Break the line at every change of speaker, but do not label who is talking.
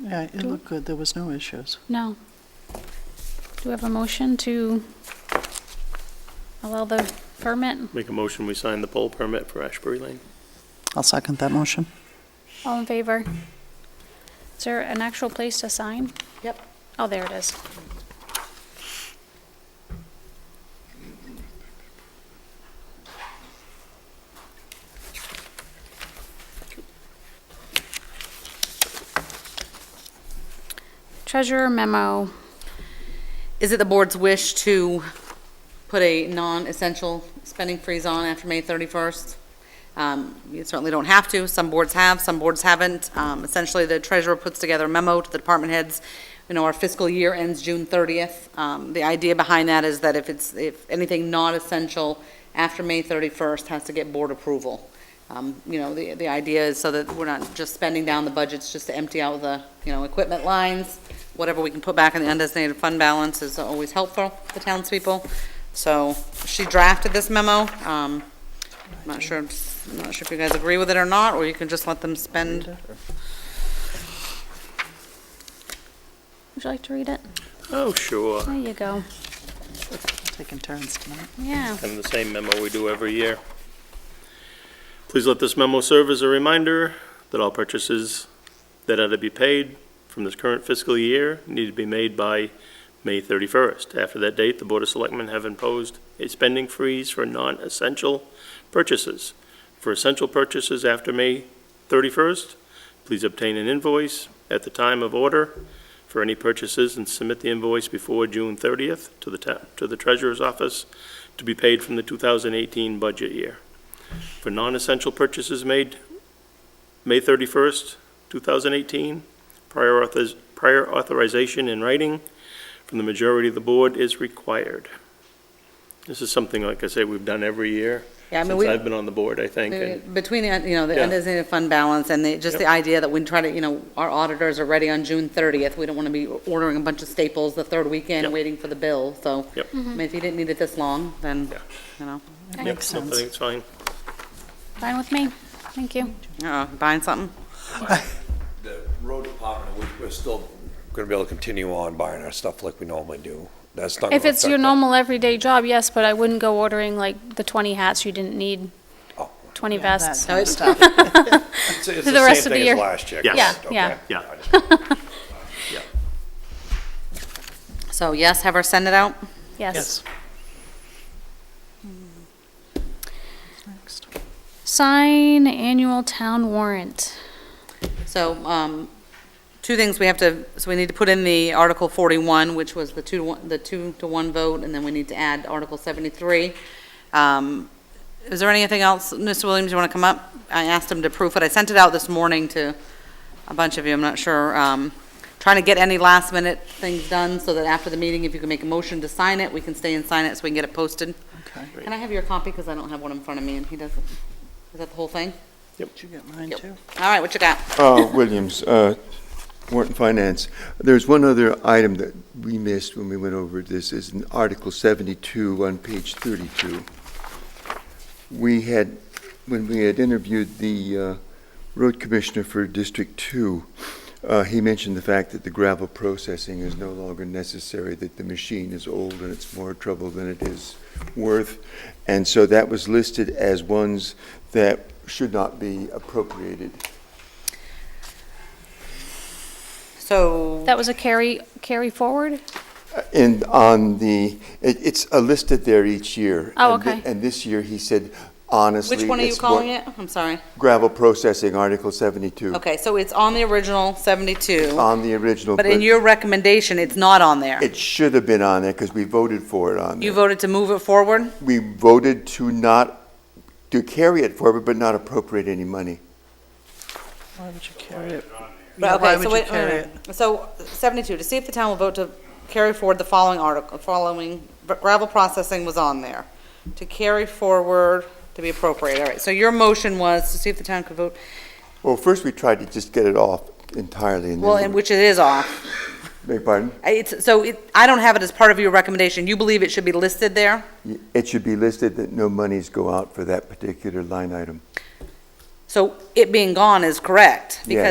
Yeah, it looked good. There was no issues.
No. Do we have a motion to allow the permit?
Make a motion, we sign the poll permit for Ashbury Lane.
I'll second that motion.
All in favor? Is there an actual place to sign?
Yep.
Oh, there it is. Treasurer memo.
Is it the board's wish to put a non-essential spending freeze on after May 31st? Um, You certainly don't have to. Some boards have, some boards haven't. Um, Essentially, the treasurer puts together a memo to the department heads. You know, our fiscal year ends June 30th. Um, The idea behind that is that if it's, if anything non-essential after May 31st has to get board approval. Um, You know, the, the idea is so that we're not just spending down the budgets just to empty out the, you know, equipment lines. Whatever we can put back in the undesignated fund balance is always helpful to townspeople. So she drafted this memo. Um, I'm not sure, I'm not sure if you guys agree with it or not, or you can just let them spend.
Would you like to read it?
Oh, sure.
There you go.
Taking turns tonight.
Yeah.
And the same memo we do every year. Please let this memo serve as a reminder that all purchases that are to be paid from this current fiscal year need to be made by May 31st. After that date, the Board of Selectmen have imposed a spending freeze for non-essential purchases. For essential purchases after May 31st, please obtain an invoice at the time of order for any purchases and submit the invoice before June 30th to the ta- to the Treasurer's Office to be paid from the 2018 budget year. For non-essential purchases made May 31st, 2018, prior authors- prior authorization in writing from the majority of the board is required. This is something, like I say, we've done every year
Yeah, I mean,
since
we.
I've been on the board, I think. and-
Between, the, you know, the
Yeah.
undesignated fund balance and the, just the
Yep.
idea that we try to, you know, our auditors are ready on June thirtieth, we don't want to be ordering a bunch of staples the third weekend,
Yep.
waiting for the bill, so.
Yep.
I mean, if you didn't need it this long, then,
Yeah.
you know,
It
Yep,
Yep,
makes
so I
sense.
think it's fine.
Fine with me. Thank you.
uh, buying something.
the road department, we- we're still going to be able to continue on buying our stuff like we normally do. That's not.
If
gonna
it's your
affect our-
normal everyday job, yes, but I wouldn't go ordering like the 20 hats you didn't need,
Oh.
20
That
vests.
kind of stuff.
It's it's
the rest of the
same thing as
year.
Last year.
Yeah.
Yeah,
correct,
yeah.
okay.
Yeah.
I just-
So yes, have her send it out.
Yes.
Yes. Next.
Sign annual town warrant.
So, um, two things we have to, so we need to put in the Article forty-one, which was the two, to one- the two to one vote, and then we need to add Article seventy-three. Um, is there anything else, Mr. Williams, you wanna come up? I asked him to proof it. I sent it out this morning to a bunch of you, I'm not sure. Um, trying to get any last minute things done so that after the meeting, if you can make a motion to sign it, we can stay and sign it so we can get it posted.
Okay.
Can I have your copy? Cause I don't have one in front of me and he doesn't. Is that the whole thing?
Did you get mine
Yep.
too?
All right, what you got?
Uh, Williams, uh, Warren Finance. There's one other item that we missed when we went over this, is in Article 72 on page 32. We had, when we had interviewed the uh, road commissioner for District 2, uh, he mentioned the fact that the gravel processing is no longer necessary, that the machine is old and it's more trouble than it is worth. And so that was listed as ones that should not be appropriated.
So.
That was a carry, carry forward?
And on the, it, it's uh, listed there each year.
Oh,
And thi-
okay.
And this year, he said, honestly.
Which one are you
it's what-
calling it? I'm sorry.
Gravel processing, Article seventy-two.
Okay, so it's on the original 72,
On the original.
but in your recommendation, it's not on there.
It should have been on there, because we voted for it on
You
there.
voted to move it forward?
We voted to not, to carry it forward, but not appropriate any money.
Why would you carry it? Yeah,
But
Why
okay,
would
so
you
wait,
carry
wait,
it?
wait. So 72, to see if the town will vote to carry forward the following article, following, but gravel processing was on there. To carry forward, to be appropriate, all right. So your motion was to see if the town could vote,
Well, first, we tried to just get it off entirely, and
well, and
then,
which it is off.
beg pardon?
It's, so it, I don't have it as part of your recommendation. You believe it should be listed there?
Y- It should be listed that no monies go out for that particular line item.
So it being gone is correct?
Yeah.
Because